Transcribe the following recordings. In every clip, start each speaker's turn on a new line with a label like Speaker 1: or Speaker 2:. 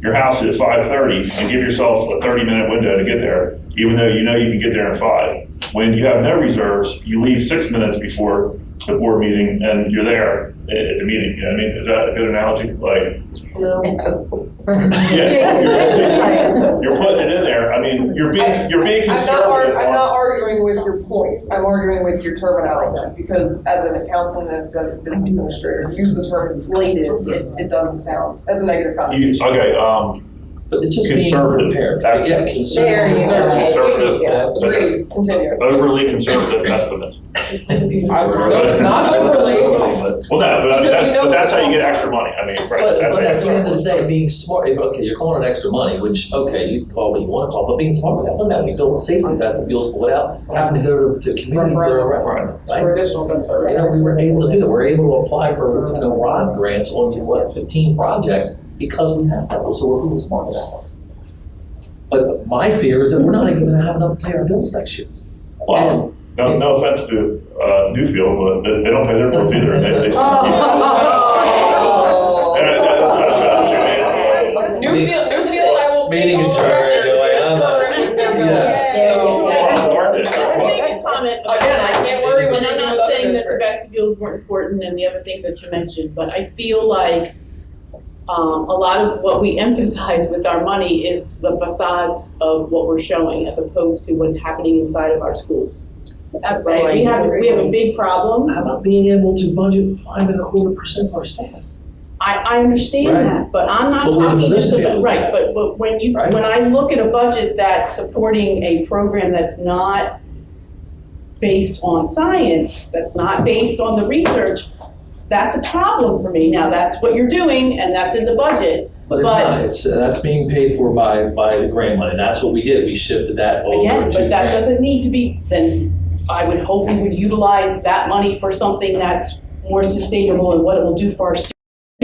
Speaker 1: your house is five thirty and give yourself a thirty minute window to get there, even though you know you can get there in five. When you have no reserves, you leave six minutes before the board meeting and you're there at at the meeting. You know what I mean, is that a good analogy? Like,
Speaker 2: Jason, that's just my-
Speaker 1: you're putting it in there. I mean, you're being, you're being
Speaker 2: I'm not, ar-
Speaker 1: conservative.
Speaker 2: I'm not
Speaker 1: on-
Speaker 2: arguing with your points, I'm arguing with your terminology, because as an accountant and as a business administrator, you use the term inflated, it, it doesn't sound, that's a negative
Speaker 1: You,
Speaker 2: connotation.
Speaker 1: okay, um,
Speaker 3: But it's just being
Speaker 1: Conservative.
Speaker 3: prepared.
Speaker 1: That's-
Speaker 3: Yeah,
Speaker 2: There you go.
Speaker 1: Conservative.
Speaker 3: Yeah.
Speaker 2: Agreed, continue.
Speaker 1: overly conservative estimates.
Speaker 2: I would- Not overly,
Speaker 1: Well, no, but I mean,
Speaker 2: Because we
Speaker 1: that,
Speaker 2: know
Speaker 1: but that's how you
Speaker 2: what's
Speaker 1: get extra money. I mean, right?
Speaker 3: But,
Speaker 1: that's how
Speaker 3: but
Speaker 1: you
Speaker 3: at
Speaker 1: get
Speaker 3: the end of
Speaker 1: extra
Speaker 3: the day, being smart, if, okay, you're calling it extra money, which, okay, you call what you wanna call, but being smart about it, that we still safety vestibules without having to go to, to community for a referendum, right?
Speaker 2: for additional concern.
Speaker 3: You know, we were able to do that, we were able to apply for, you know, ROD grants on, what, fifteen projects, because we have that, so we're really smart about that. But my fear is that we're not even gonna have enough to pay our bills next year.
Speaker 1: Well, No, no offense to uh, Newfield, but they, they don't pay their bills either. They, they
Speaker 2: Oh.
Speaker 1: And that's not a strategy, man.
Speaker 2: Newfield, Newfield, I will say
Speaker 3: Meeting
Speaker 2: on the
Speaker 3: adjourned,
Speaker 2: record,
Speaker 3: they're like,
Speaker 2: is
Speaker 3: I'm not-
Speaker 2: current with their
Speaker 3: Yeah.
Speaker 2: bills.
Speaker 1: Well,
Speaker 2: So,
Speaker 1: it's worth it.
Speaker 4: I would make a comment. about
Speaker 2: Again, I
Speaker 4: that.
Speaker 2: can't worry when
Speaker 4: And
Speaker 2: I
Speaker 4: I'm
Speaker 2: do
Speaker 4: not
Speaker 2: with other
Speaker 4: saying that the
Speaker 2: districts.
Speaker 4: vestibules weren't important and the other things that you mentioned, but I feel like um, a lot of what we emphasize with our money is the facades of what we're showing as opposed to what's happening inside of our schools.
Speaker 2: That's
Speaker 4: Right? We have, we have a big problem.
Speaker 3: How about being able to budget five and a quarter percent of our staff?
Speaker 4: I, I understand
Speaker 3: Right.
Speaker 4: that, but I'm not
Speaker 3: But we're in a
Speaker 4: talking just
Speaker 3: position to
Speaker 4: about,
Speaker 3: do that.
Speaker 4: right, but, but when you,
Speaker 3: Right.
Speaker 4: when I look at a budget that's supporting a program that's not based on science, that's not based on the research, that's a problem for me. Now, that's what you're doing and that's in the budget.
Speaker 3: But it's
Speaker 4: But-
Speaker 3: not, it's, uh, that's being paid for by, by the grant money, that's what we did, we shifted that over to
Speaker 4: Again, but that
Speaker 3: grant.
Speaker 4: doesn't need to be, then I would hope we would utilize that money for something that's more sustainable and what it will do for our students.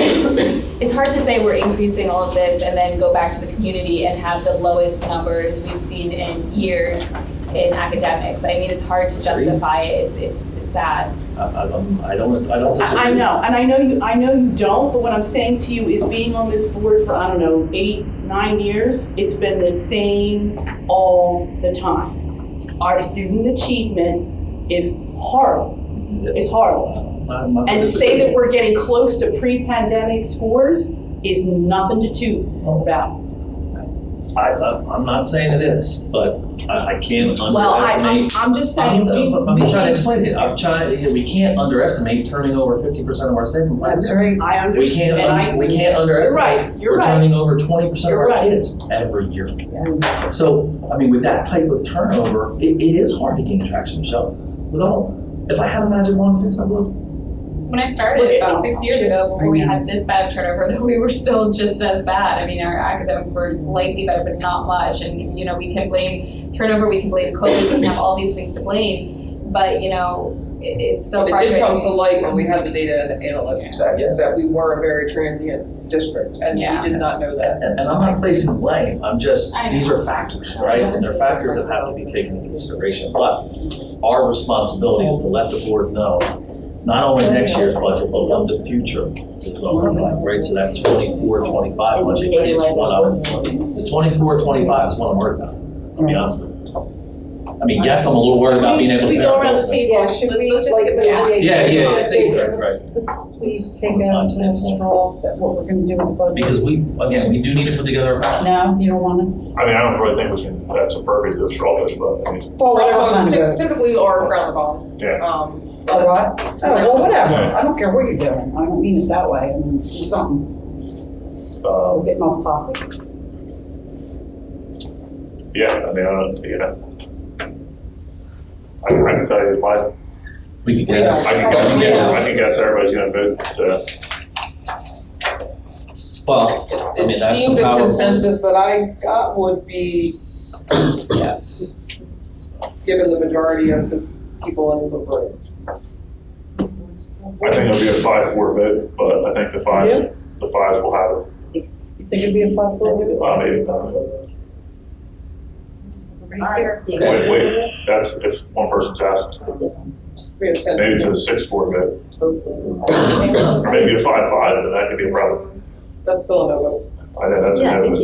Speaker 5: it's hard to say we're increasing all of this and then go back to the community and have the lowest numbers we've seen in years in academics. I mean, it's hard to justify it. It's, it's, it's sad.
Speaker 3: I, I don't, I don't- I don't disagree.
Speaker 4: I I know, and I know you, I know you don't, but what I'm saying to you is being on this board for, I don't know, eight, nine years, it's been the same all the time. Our student achievement is horrible,
Speaker 3: Yes.
Speaker 4: it's horrible.
Speaker 3: I'm not
Speaker 4: And to say that
Speaker 3: disagreeing.
Speaker 4: we're getting close to pre-pandemic scores is nothing to toot about.
Speaker 3: I, I'm I'm not saying it is, but I, I can't
Speaker 4: Well, I, I'm,
Speaker 3: underestimate.
Speaker 4: I'm just saying, we,
Speaker 3: I'm- uh, I'm trying to
Speaker 4: we,
Speaker 3: explain it, I'm trying, we can't underestimate turning over fifty percent of our staff in five years.
Speaker 4: I
Speaker 3: We can't,
Speaker 4: understand, and I.
Speaker 3: un- we can't
Speaker 4: You're right,
Speaker 3: underestimate,
Speaker 4: you're
Speaker 3: we're
Speaker 4: right.
Speaker 3: turning over twenty percent of
Speaker 4: You're
Speaker 3: our
Speaker 4: right.
Speaker 3: kids every year. So, I mean, with that type of turnover, it, it is hard to gain traction, Michelle. With all, if I had a magic wand fix, I would.
Speaker 5: When I
Speaker 4: Look
Speaker 5: started
Speaker 4: at
Speaker 5: about
Speaker 4: that.
Speaker 5: six years ago, before we had this bad of turnover, though we were still just as bad. I mean, our academics were slightly better, but not much. And, you know, we can blame turnover, we can blame COVID, we can have all these things to blame. But, you know, it, it's still
Speaker 2: But it did
Speaker 5: frustrating.
Speaker 2: come to light when we had the data and analysts that,
Speaker 3: Yeah.
Speaker 2: that we were a very transient district, and
Speaker 5: Yeah.
Speaker 2: we did not know that.
Speaker 3: And, and I'm not placing blame, I'm just,
Speaker 5: I know.
Speaker 3: these are factors, right? And they're factors that have to be taken into consideration. But our responsibility is to let the board know, not only next year's budget, but what the future is going to look like, right? So that 24-25 budget is what I'm, the 24-25 is what I'm worried about, to be honest with you. I mean, yes, I'm a little worried about being able to.
Speaker 6: Can we
Speaker 3: pay our
Speaker 6: go around
Speaker 3: bills
Speaker 6: the
Speaker 3: next
Speaker 6: table?
Speaker 3: year.
Speaker 7: Yeah, should we,
Speaker 6: Let's
Speaker 7: like,
Speaker 6: get the
Speaker 7: yeah.
Speaker 6: debate
Speaker 3: Yeah, yeah, yeah,
Speaker 6: going.
Speaker 3: take that,
Speaker 6: Let's-
Speaker 3: right.
Speaker 7: Let's please take out
Speaker 3: Sometimes
Speaker 7: the
Speaker 3: that's one.
Speaker 7: straw, that what we're gonna do with budget.
Speaker 3: Because we, again, we do need to put together a plan.
Speaker 6: No, you don't wanna?
Speaker 1: I mean, I don't really think we can, that's appropriate to straw this, but I mean,
Speaker 7: Well,
Speaker 2: Brother
Speaker 7: what about
Speaker 2: bonds
Speaker 7: time
Speaker 2: ty-
Speaker 7: to
Speaker 2: typically are frowned upon.
Speaker 1: Yeah.
Speaker 2: Um,
Speaker 7: go? A what? Oh, well, whatever,
Speaker 1: Yeah.
Speaker 7: I don't care what you're doing, I don't mean it that way, I mean, it's something,
Speaker 1: um,
Speaker 7: we're getting off topic.
Speaker 1: yeah, I mean, I don't, you know. I, I can tell you, my, I
Speaker 3: We could
Speaker 2: Yeah.
Speaker 3: guess.
Speaker 1: can guess, I can guess everybody's gonna vote, uh, so.
Speaker 3: Well, I mean,
Speaker 2: it
Speaker 3: that's
Speaker 2: seemed
Speaker 3: the
Speaker 2: the
Speaker 3: power. of-
Speaker 2: consensus that I got would be yes, given the majority of the people in the room.
Speaker 1: I think it'll be a five-four vote, but I think the fives, the fives will have it,
Speaker 7: You think it'd be a five foot?
Speaker 1: uh, maybe. Wait, wait, that's if one person's absent.
Speaker 2: We have ten.
Speaker 1: Maybe it's a six-four vote, or maybe a five-five, and that could be a problem.
Speaker 2: That's still a no vote.
Speaker 1: I know that's a
Speaker 6: Yeah, I
Speaker 1: no,
Speaker 6: think
Speaker 1: but-